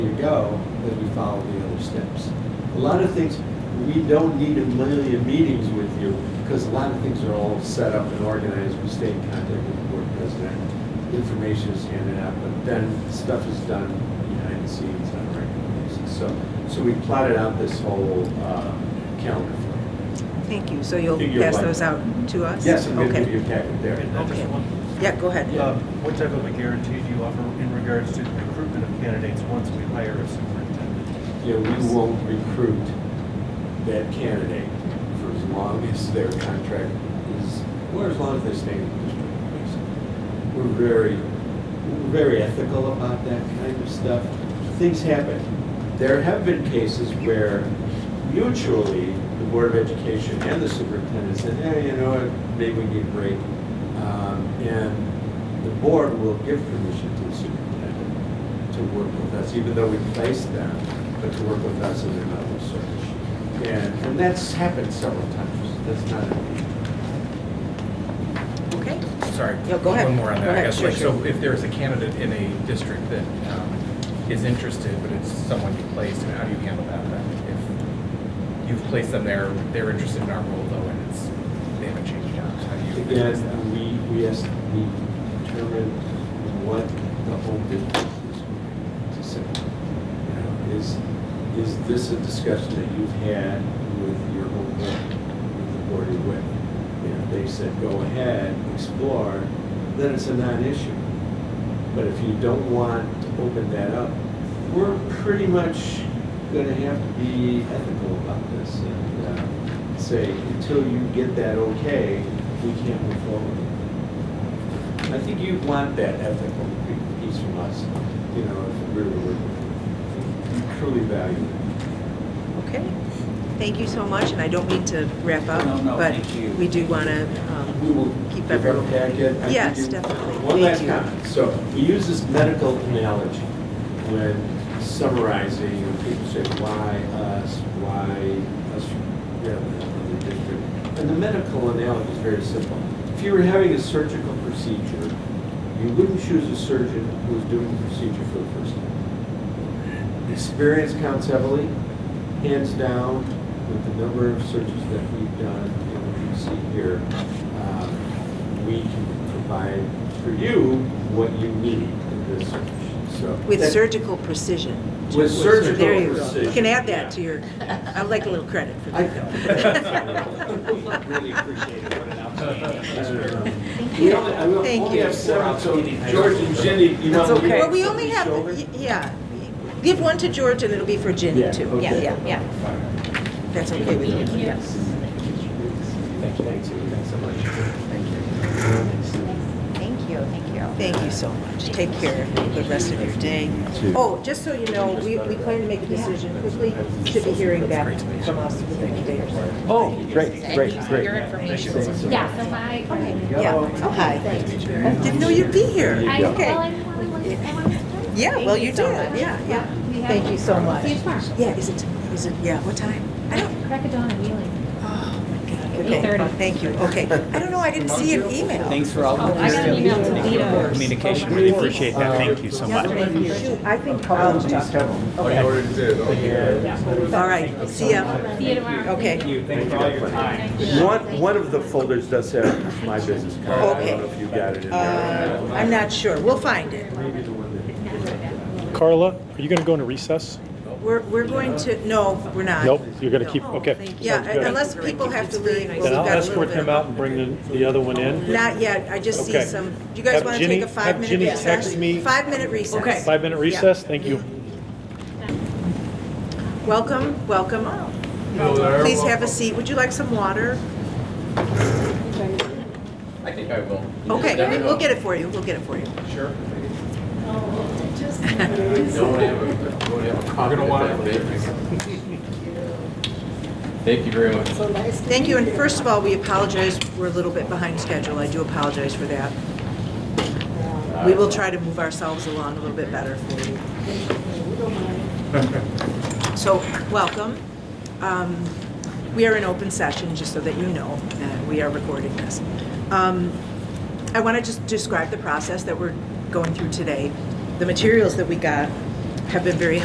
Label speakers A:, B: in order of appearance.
A: to go as we follow the other steps. A lot of things, we don't need a million meetings with you because a lot of things are all set up and organized. We stay in contact with the board president. Information is handed out, but then stuff is done behind the scenes on a regular basis. So, so we plotted out this whole uh, calendar for
B: Thank you. So you'll
A: Figure
B: pass
A: one.
B: those out to
A: you.
B: us?
A: Yes, I'm going to
B: Okay.
A: give you a packet there.
C: And I just
B: Okay.
C: want-
B: Yeah, go ahead.
A: Yeah.
C: um, What type of a guarantee do you offer in regards to recruitment of candidates once we hire a superintendent?
A: Yeah, we won't recruit that candidate for as long as their contract is, or as long as they stay in the district, basically. We're very, we're very ethical about that kind of stuff. Things happen. There have been cases where mutually, the Board of Education and the superintendent said, hey, you know what, maybe we need a break. Um, And the board will give permission to the superintendent to work with us, even though we placed them, but to work with us in another search. And, and that's happened several times. That's not, unusual.
B: Okay.
D: Sorry.
B: No, go ahead.
D: One more on
B: Go
D: that, I
B: ahead.
D: guess.
B: Sure,
D: Like,
B: sure.
D: so if there's a candidate in a district that um, is interested, but it's someone you placed, and how do you handle that then? If you've placed them there, they're interested in our role though, and it's, they haven't changed jobs, how do you? address that?
A: again, we, we asked, we determined what the whole business is going to say. You know, Is, is this a discussion that you've had with your whole board, with the board you're with? You know, if they said, go ahead, explore, then it's a non-issue. But if you don't want to open that up, we're pretty much going to have to be ethical about this and uh, say, until you get that okay, we can't move forward. I think you want that ethical piece from us, you know, if we were, we truly value it.
B: Okay. Thank you so much, and I don't mean to wrap up,
E: No, no,
B: but
E: thank you.
B: we do want to
A: We will
B: Um, keep
A: give our
B: everyone.
A: packet. I
B: Yes,
A: think you-
B: definitely.
A: One last
B: Thank you.
A: comment. So we use this medical analogy when summarizing, when people say, why us, why us, you know, another district. And the medical analogy is very simple. If you were having a surgical procedure, you wouldn't choose a surgeon who was doing the procedure for the first time. Experience counts heavily, hands down, with the number of searches that we've done and what you see here. um, We can provide for you what you need in this search, so.
B: With
A: that-
B: surgical precision.
A: With surgical
B: There you go.
A: precision.
B: You can add that to your, I'd like a little credit for
A: I
B: that.
E: Really appreciate it, what an outstanding.
A: Thank
B: you.
A: We
B: Thank
A: only
B: you.
A: have seven, so George and Jenny, you want
B: That's
A: to leave
B: okay. Well, we
A: on
B: only
A: each
B: have,
A: shoulder?
B: y- yeah. Give one to George, and it'll be for Ginny,
A: Yeah,
B: too. Yeah,
A: okay.
B: yeah, yeah. That's okay with you. Yes.
A: Thank you, thanks so much.
F: Thank you, thank you.
B: Thank you so much. Take care of the rest of your day.
A: too.
B: Oh, just so you know, we, we plan to make a decision quickly. Should be hearing back from us within a day or so.
A: Oh, great, great, great.
F: Yeah, so my,
B: Yeah. Oh, hi. Didn't know you'd be here.
F: I, well,
B: Okay.
F: I really wanted, I wanted to.
B: Yeah, well, you
F: so
B: did.
F: much.
B: Yeah, yeah.
F: We have-
B: Thank you so much.
F: See you tomorrow.
B: Yeah, is it, is it, yeah, what time? I don't,
F: Crack of dawn in Wheeling.
B: oh, my God. Okay,
F: 8:30.
B: thank you. Okay. I don't know, I didn't see an email.
E: Thanks for all
F: Oh, I got an email to Lita.
G: communication. Really appreciate that. Thank you so
B: Yeah,
G: much.
B: thank you. Shoot, I think um, Paul talked.
G: Okay.
B: All right, see ya.
F: See you tomorrow.
B: Okay.
E: you, thank you for all your time.
A: One, one of the folders does have my business card. I don't know if you got it in there.
B: Uh, I'm not sure. We'll find it.
H: Carla, are you going to go into recess?
B: We're, we're going to, no, we're not.
H: Nope, you're going to keep, okay.
B: Yeah,
H: sounds good.
B: unless people have to leave. well,
H: Then
B: we've got
H: I'll
B: a little
H: escort
B: bit
H: him
B: of-
H: out and bring the, the other one in.
B: Not yet, I just see
H: Okay.
B: some, do you guys
H: Have
B: want to
H: Ginny-
B: take a five-minute
H: have Ginny
B: recess?
H: text me-
B: Five-minute recess.
H: Five-minute
B: Yeah.
H: recess? Thank you.
B: Welcome, welcome. Please have a seat. Would you like some water?
D: I think I will.
B: Okay, we'll get it for you, we'll get it for you.
D: Sure. Don't have a, don't have a. You're gonna want it. Thank you very much.
B: Thank you, and first of all, we apologize, we're a little bit behind schedule, I do apologize for that. We will try to move ourselves along a little bit better for you. So, welcome. Um, We are in open session, just so that you know, that we are recording this. Um, I want to just describe the process that we're going through today. The materials that we got have been very